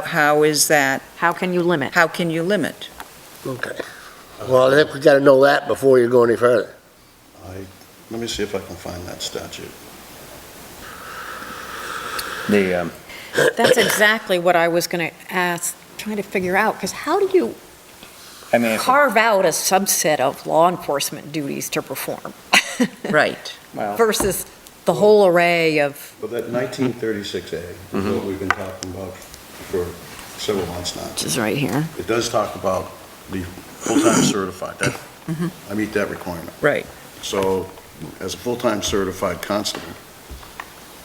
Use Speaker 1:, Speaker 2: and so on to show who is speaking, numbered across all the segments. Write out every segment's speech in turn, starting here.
Speaker 1: How- How is that,
Speaker 2: How can you limit?
Speaker 1: how can you limit?
Speaker 3: Okay. Well, I think we gotta know that before you go any further.
Speaker 4: I, let me see if I can find that statute.
Speaker 5: The, um,
Speaker 2: That's exactly what I was going to ask, trying to figure out, because how do you
Speaker 5: I mean, if-
Speaker 2: carve out a subset of law enforcement duties to perform
Speaker 1: Right.
Speaker 5: well,
Speaker 2: versus the whole array of,
Speaker 4: But that 1936A is what we've been talking about for several months now.
Speaker 2: is right here.
Speaker 4: It does talk about the full-time certified, that, I meet that requirement.
Speaker 1: Right.
Speaker 4: So as a full-time certified constable,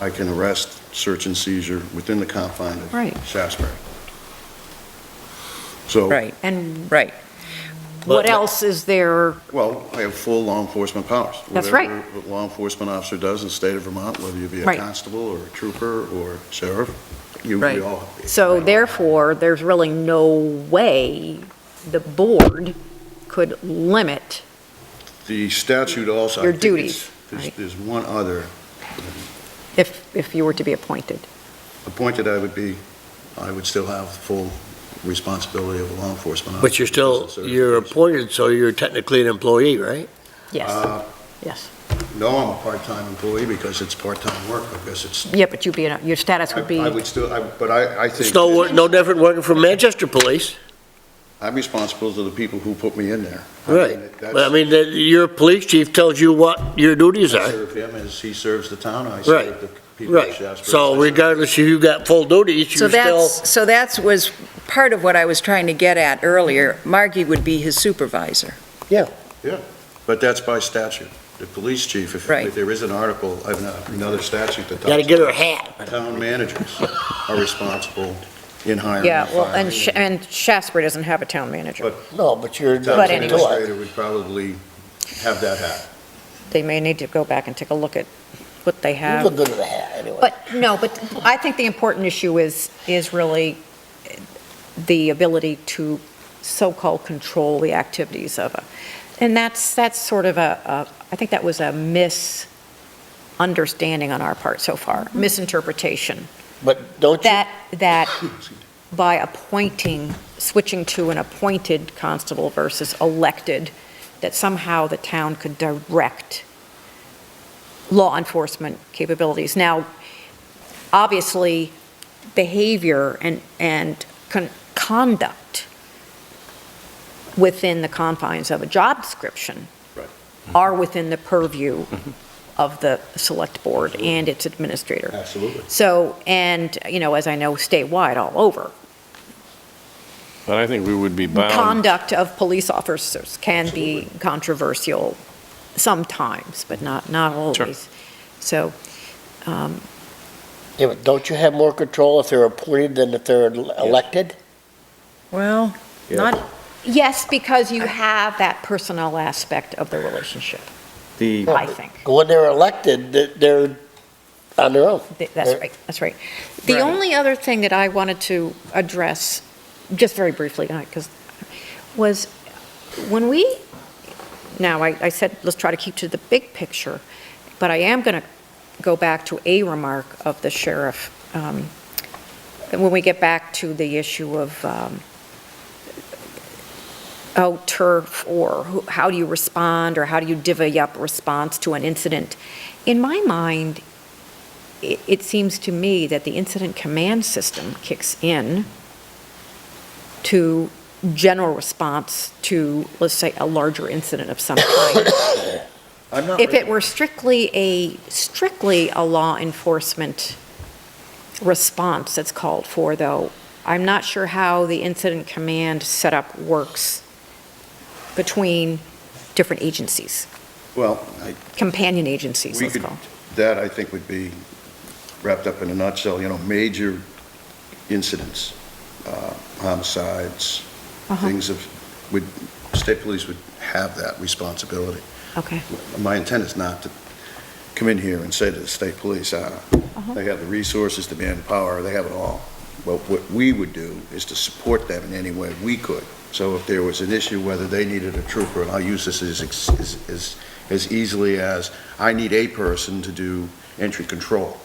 Speaker 4: I can arrest, search and seizure within the confine of
Speaker 2: Right.
Speaker 4: Shasberry. So,
Speaker 1: Right,
Speaker 2: And
Speaker 1: right.
Speaker 2: what else is there?
Speaker 4: well, I have full law enforcement powers.
Speaker 2: That's right.
Speaker 4: Whatever a law enforcement officer does in the state of Vermont, whether you be a
Speaker 2: Right.
Speaker 4: constable or a trooper or sheriff, you,
Speaker 1: Right.
Speaker 4: we all.
Speaker 2: So therefore, there's really no way the board could limit.
Speaker 4: The statute also. I
Speaker 2: Your
Speaker 4: think it's-
Speaker 2: duties,
Speaker 4: there's-
Speaker 2: right.
Speaker 4: There's one other
Speaker 2: If, if you were to be appointed.
Speaker 4: appointed I would be, I would still have full responsibility of a law enforcement officer.
Speaker 3: But you're still,
Speaker 4: So
Speaker 3: you're
Speaker 4: it's-
Speaker 3: appointed, so you're technically an employee, right?
Speaker 2: Yes,
Speaker 4: Uh,
Speaker 2: yes.
Speaker 4: No, I'm a part-time employee because it's part-time work, because it's,
Speaker 2: Yeah, but you'd be, in a- your status
Speaker 4: I
Speaker 2: would be,
Speaker 4: I would still, I- but I, I think.
Speaker 3: It's no, wor- no different working for Manchester Police.
Speaker 4: I'm responsible to the people who put me in there. I mean,
Speaker 3: Right.
Speaker 4: that's-
Speaker 3: But I mean, that- your police chief tells you what your duties
Speaker 4: I
Speaker 3: are.
Speaker 4: serve him as he serves the town, I
Speaker 3: Right,
Speaker 4: serve the people of
Speaker 3: Right.
Speaker 4: Shasbury.
Speaker 3: So regardless if you got full duties,
Speaker 1: So
Speaker 3: you're still,
Speaker 1: that's, so that's was part of what I was trying to get at earlier. Margie would be his supervisor.
Speaker 4: But that's by statute. The police chief, if
Speaker 1: Right.
Speaker 4: if there is an article, I have ano- another statute that
Speaker 3: gotta
Speaker 4: talks
Speaker 3: get her a hat.
Speaker 4: town managers are responsible in hiring.
Speaker 2: yeah, well, and,
Speaker 4: firing.
Speaker 2: Sh- and Shasbury doesn't have a town manager.
Speaker 4: But-
Speaker 3: No, but you're.
Speaker 4: Town
Speaker 2: But anyway.
Speaker 4: administrator would probably have that hat.
Speaker 2: They may need to go back and take a look at what they
Speaker 3: You
Speaker 2: have.
Speaker 3: look good with a hat, anyway.
Speaker 2: But, no, but I think the important issue is, is really the ability to so-called control the activities of a, and that's, that's sort of a, a- I think that was a misunderstanding on our part so far, misinterpretation,
Speaker 3: But don't you,
Speaker 2: that, that by appointing, switching to an appointed constable versus elected, that somehow the town could direct law enforcement capabilities. Now, obviously, behavior and, and con- conduct within the confines of a job description
Speaker 4: Right.
Speaker 2: are within the purview of the select board and its administrator.
Speaker 4: Absolutely.
Speaker 2: So, and, you know, as I know, statewide all over,
Speaker 6: But I think we would be bound,
Speaker 2: conduct of police officers can be controversial sometimes, but not, not always. So, um,
Speaker 3: yeah, but don't you have more control if they're appointed than if they're elected?
Speaker 1: Well, not,
Speaker 2: yes, because you have that personnel aspect of the relationship,
Speaker 5: the,
Speaker 2: I think.
Speaker 3: When they're elected, th- they're on their own.
Speaker 2: Th- That's
Speaker 3: Right.
Speaker 2: right, that's right. The
Speaker 1: Right.
Speaker 2: only other thing that I wanted to address, just very briefly, because, was when we, now, I, I said, let's try to keep to the big picture, but I am going to go back to a remark of the sheriff, um, when we get back to the issue of um, oh, turf, or who- how do you respond, or how do you divvy up response to an incident? In my mind, it, it seems to me that the incident command system kicks in to general response to, let's say, a larger incident of some kind.
Speaker 4: I'm not
Speaker 2: If it were strictly a, strictly a law enforcement response that's called for, though, I'm not sure how the incident command setup works between different agencies,
Speaker 4: Well, I-
Speaker 2: companion agencies,
Speaker 4: We
Speaker 2: let's
Speaker 4: could-
Speaker 2: call.
Speaker 4: that I think would be wrapped up in a nutshell, you know, major incidents, uh, homicides,
Speaker 2: Uh-huh.
Speaker 4: things of, would, state police would have that responsibility.
Speaker 2: Okay,
Speaker 4: My intent is not to come in here and say to the state police, uh, they have the resources, the manpower, they have it all. But what we would do is to support them in any way we could. So if there was an issue, whether they needed a trooper, and I'll use this as, ex- as, as- as easily as, I need a person to do entry control.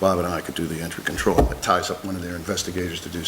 Speaker 4: Bob and I could do the entry control. It ties up one of their investigators to do